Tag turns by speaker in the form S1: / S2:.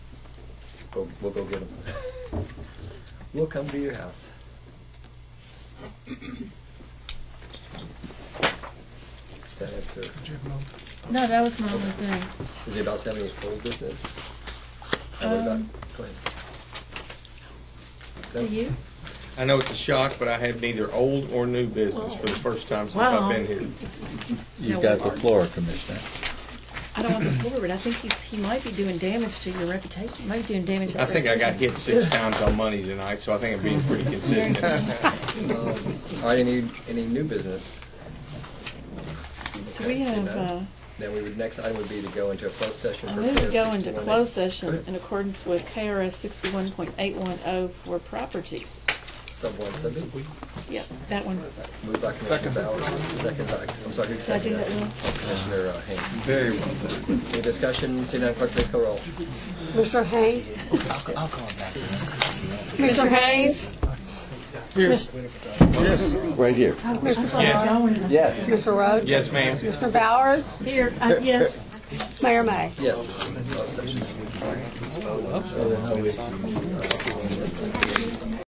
S1: Go, we'll go get them. We'll come to your house. Is that it, sir?
S2: No, that was my only thing.
S1: Is it about having any old business? And what about,
S2: Um,
S1: go ahead.
S2: Do you?
S3: I know it's a shock, but I have neither old or new business for the first time since
S2: Wow.
S3: I've been here.
S4: You've got the floor, Commissioner.
S2: I don't want to forward. I think he's, he might be doing damage to your reputation. He might be doing damage. to
S3: I think I got hit six times on money tonight, so I think I'm being pretty consistent.
S1: Um, All right, any, any new business?
S2: Do we
S1: Okay, seeing
S2: have,
S1: none.
S2: uh,
S1: Then we would, next item would be to go into a closed session.
S2: I
S1: for
S2: move to
S1: KRS
S2: go into
S1: 61.
S2: closed session in accordance with KRS sixty-one point eight one oh for property.
S1: Sub one, sub B.
S2: Yep, that one.
S1: Moved by Commissioner Bowers, second by, I'm sorry, who
S2: Did I do
S1: seconded
S2: that
S1: that?
S2: wrong?
S1: Commissioner uh, Haynes. Very well. Any discussion, seeing none, clerk, please call roll.
S5: Mr. Hayes? Mr. Hayes?
S4: Right here.
S3: Yes,
S4: Yes.
S5: Mr. Rhodes?
S3: yes, ma'am.
S5: Mr. Bowers?
S2: Here, uh, yes.
S5: Mayor May?
S1: Yes, Oh, closed session.